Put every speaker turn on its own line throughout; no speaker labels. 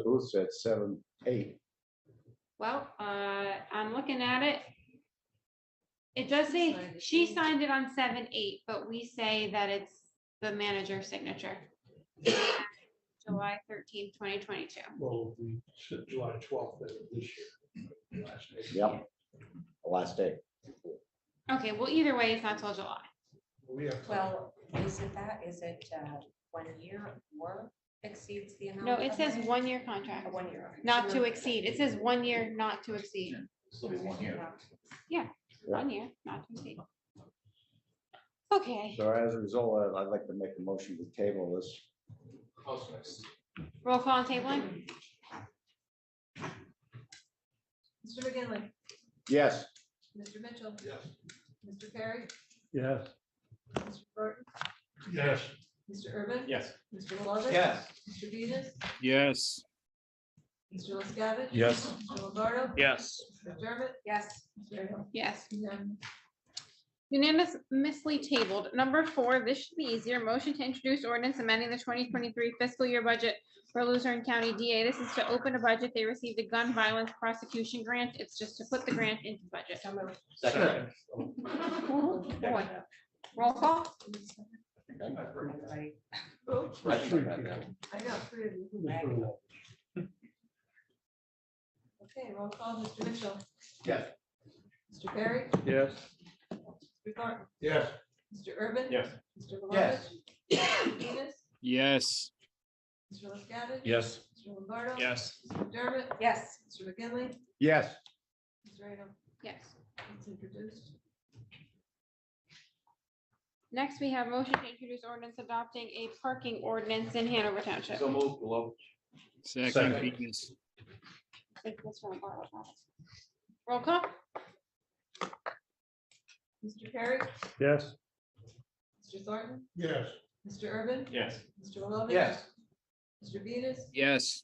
closed at seven, eight.
Well, uh, I'm looking at it. It does say, she signed it on seven, eight, but we say that it's the manager's signature. July thirteenth, twenty twenty-two.
Well, we said July twelfth this year. last day.
Yep. The Last day.
Okay, well, either way, it's not till July.
We have. to-
Well, is it that, is it uh, one year or exceeds the amount?
No, it says
covered?
one-year contract,
A One year.
not to exceed. It says one year, not to exceed.
Still be one year.
Yeah.
One year, not to exceed. Okay,
So as a result, I'd- I'd like to make a motion to table this.
roll call on tabling?
Mr. McGinley,
Yes,
Mr. Mitchell,
Yes.
Mr. Perry,
Yes.
Mr. Burton,
Yes.
Mr. Urban.
Yes.
Mr. Lovett.
Yes.
Mr. Venus,
Yes.
Mr. LaScavitch.
Yes.
Mr. Lombardo.
Yes.
Mr. Dermott,
Yes,
Mr. Engel.
Yes.
Unanimous.
Unanimously tabled. Number four, this should be easier. Motion to introduce ordinance amending the twenty twenty-three fiscal year budget for Luzerne County DA. This is to open a budget. They received a gun violence prosecution grant. It's just to put the grant into budget.
so moved.
Second.
Ooh, boy. Roll call?
Everybody.
Right, right, right, right.
I know, three of you. Okay, roll call, Mr. Mitchell.
Yes.
Mr. Perry,
Yes.
Mr. Thornton,
Yes.
Mr. Urban.
Yes.
Mr.
Yes.
Lovett. Mr. Venus,
Yes.
Mr. LaScavitch.
Yes.
Mr. Lombardo.
Yes.
Mr. Dermott,
Yes,
Mr. McGinley,
yes,
Mr. Engel.
Yes.
It's introduced.
Next, we have motion to introduce ordinance adopting a parking ordinance in Hanover Township.
So move, Love.
Second,
Second.
Venus.
Roll call?
Mr. Perry,
Yes.
Mr. Thornton,
Yes.
Mr. Urban.
Yes.
Mr. Lovett.
Yes.
Mr. Venus,
Yes.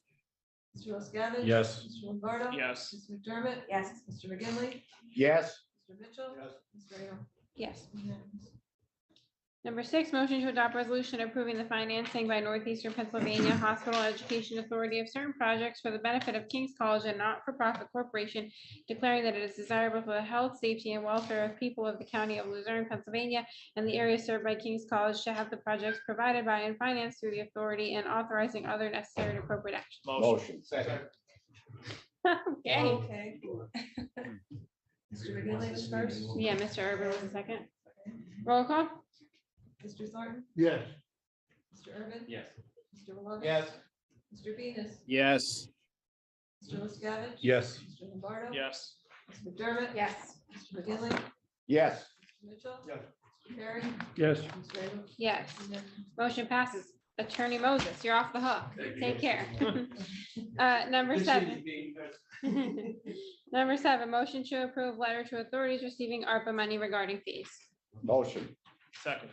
Mr. LaScavitch.
Yes.
Mr. Lombardo.
Yes.
Ms. McDermott.
yes.
Mr. McGinley,
yes.
Mr. Mitchell. Mr. Engel.
Yes.
Unanimous.
Number six, motion to adopt resolution approving the financing by Northeastern Pennsylvania Hospital Education Authority of certain projects for the benefit of King's College and not-for-profit corporation, declaring that it is desirable for the health, safety, and welfare of people of the county of Luzerne, Pennsylvania, and the area served by King's College to have the projects provided by and financed through the authority and authorizing other necessary and appropriate action.
Motion.
Second.
Okay,
Okay. Mr. McGinley was first,
yeah, Mr. Urban was the second. Roll call?
Mr. Thornton,
Yes.
Mr. Urban,
Yes.
Mr. Lovett.
Yes.
Mr. Venus,
Yes.
Mr. LaScavitch.
Yes.
Mr. Lombardo.
Yes.
Mr. McDermott.
Yes.
Mr. McGinley,
Yes,
Mr. Mitchell.
Yes.
Mr. Perry,
Yes.
Mr. Engel.
Yes.
Unanimous.
Motion passes. Attorney Moses, you're off the hook. Take care. Uh, number seven. Number seven, motion to approve letter to authorities receiving ARPA money regarding fees.
motion.
Second.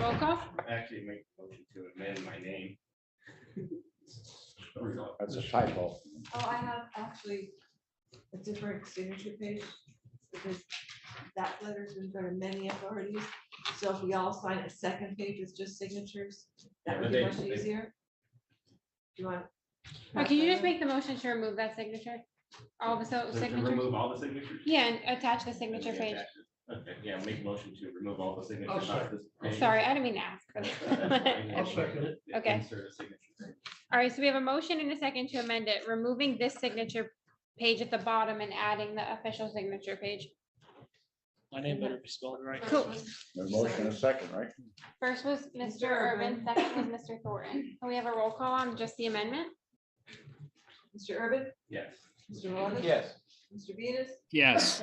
Roll call?
actually make a motion to amend my name.
That's a typo.
Oh, I have actually a different signature page. because That letter's been going to many authorities, so if we all sign a second page with just signatures, that would be
Yeah,
much
but they- they-
easier. Do you want?
Or Oh, can you just make the motion to remove that signature? All the so
To to
signature?
remove all the signatures?
Yeah, and attach the signature page.
Okay, yeah, make a motion to remove all the signatures.
I'll
off this page.
Sorry, I didn't mean to
That's
ask.
fine.
Oh, I'll second it.
Okay.
Insert a signature.
All right, so we have a motion and a second to amend it, removing this signature page at the bottom and adding the official signature page.
My name better be spelled right.
Cool.
A motion and a second, right?
First was Mr.
Mr.
Urban,
Urban.
second was Mr. Thornton. Can we have a roll call on just the amendment?
Mr. Urban,
Yes.
Mr. Lawland.
Yes.
Mr. Venus,
Yes.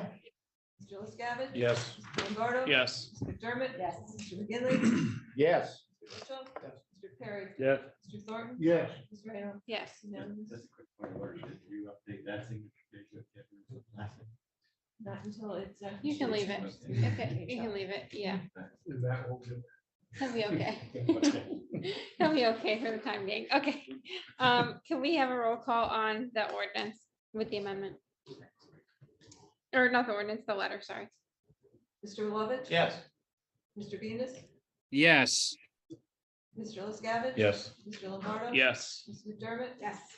Mr. LaScavitch.
Yes.
Mr. Lombardo.
Yes.
Mr. McDermott.
Yes.
Mr. McGinley. Mr.
Yes,
Mitchell.
Yes.
Mr. Perry.
Yes.
Mr. Thornton.
Yes.
Mr. Rayo.
Yes.
Unanimous.
Just a quick point of order, did you update that signature? page with the other last name?
Not until it's. uh,
You can leave it.
Okay.
Okay, you can leave it. Yeah,
And that will do.
he'll be okay. He'll be okay for the time being. Okay. Um, can we have a roll call on the ordinance with the amendment? Or not the ordinance, the letter, sorry.
Mr. Lovett.
Yes.
Mr. Venus,
Yes.
Mr. LaScavitch.
Yes.
Mr. Lombardo.
Yes.
Ms. McDermott.
Yes.